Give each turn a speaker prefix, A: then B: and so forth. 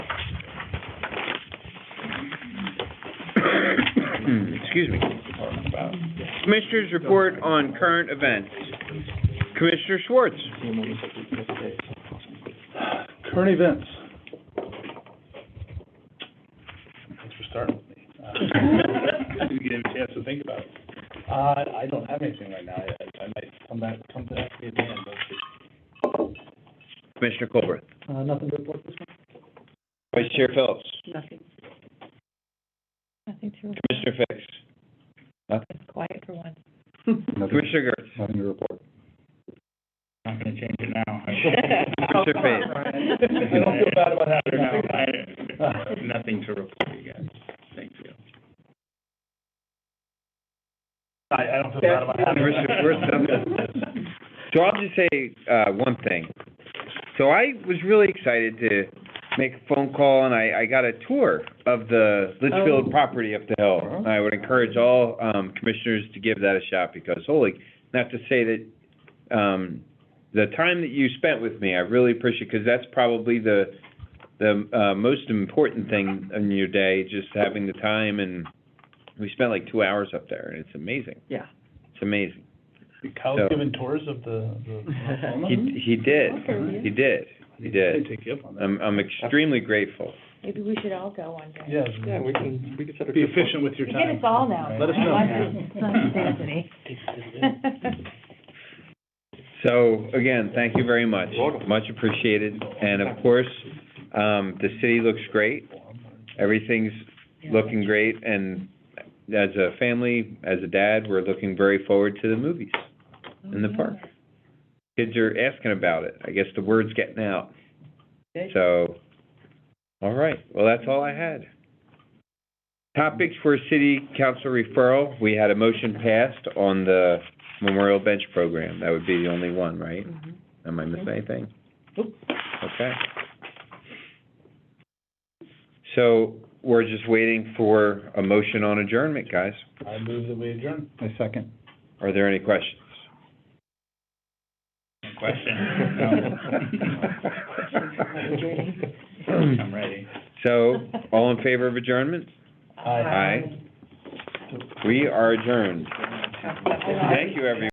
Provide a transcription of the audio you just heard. A: excuse me. Commissioners report on current events. Commissioner Schwartz.
B: Current events. Thanks for starting with me. Uh, You gave me a chance to think about it. Uh, I don't have anything right now. I, I might come back, come back to you at the end, but
A: Commissioner Colbert.
C: Uh, nothing to report this month?
A: Vice Chair Phillips.
D: Nothing. Nothing to report.
A: Commissioner Fix.
D: It's quiet for once.
A: Commissioner Gertz.
B: Nothing to report. Not gonna change it now.
A: Commissioner Fain.
B: I don't feel bad about having nothing.
E: Nothing to report, you guys. Thank you.
B: I, I don't feel bad about having.
A: Commissioner Schwartz. So I'll just say, uh, one thing. So I was really excited to make a phone call and I, I got a tour of the
C: Oh.
A: Litchfield property up the hill.
B: Uh-huh.
A: And I would encourage all, um, commissioners to give that a shot because holy, not to say that, um, the time that you spent with me, I really appreciate, because that's probably the, the, uh, most important thing in your day, just having the time and we spent like two hours up there and it's amazing.
C: Yeah.
A: It's amazing.
B: Kyle's giving tours of the, the.
A: He, he did,
D: Okay.
A: he did, he did. Um,
B: Take you up on that.
A: I'm, I'm extremely grateful.
D: Maybe we should all go one day.
B: Yeah.
E: Yeah, we can, we can set a.
B: Be efficient with your
D: You
B: time.
D: get us all now.
B: Let us know.
A: So, again, thank you very much. Much appreciated. And of course, um, the city looks great. Everything's looking great and as a family, as a dad, we're looking very forward to the movies in the park. Kids are asking about it. I guess the word's getting out. So, all right, well, that's all I had. Topics for city council referral, we had a motion passed on the memorial bench program. That would be the only one, right? Am I missing anything? Okay. So we're just waiting for a motion on adjournment, guys.
B: I move that we adjourn. I second.
A: Are there any questions?
B: Question. I'm ready.
A: So, all in favor of adjournment?
B: Aye.
A: Aye. We are adjourned. Thank you, everyone.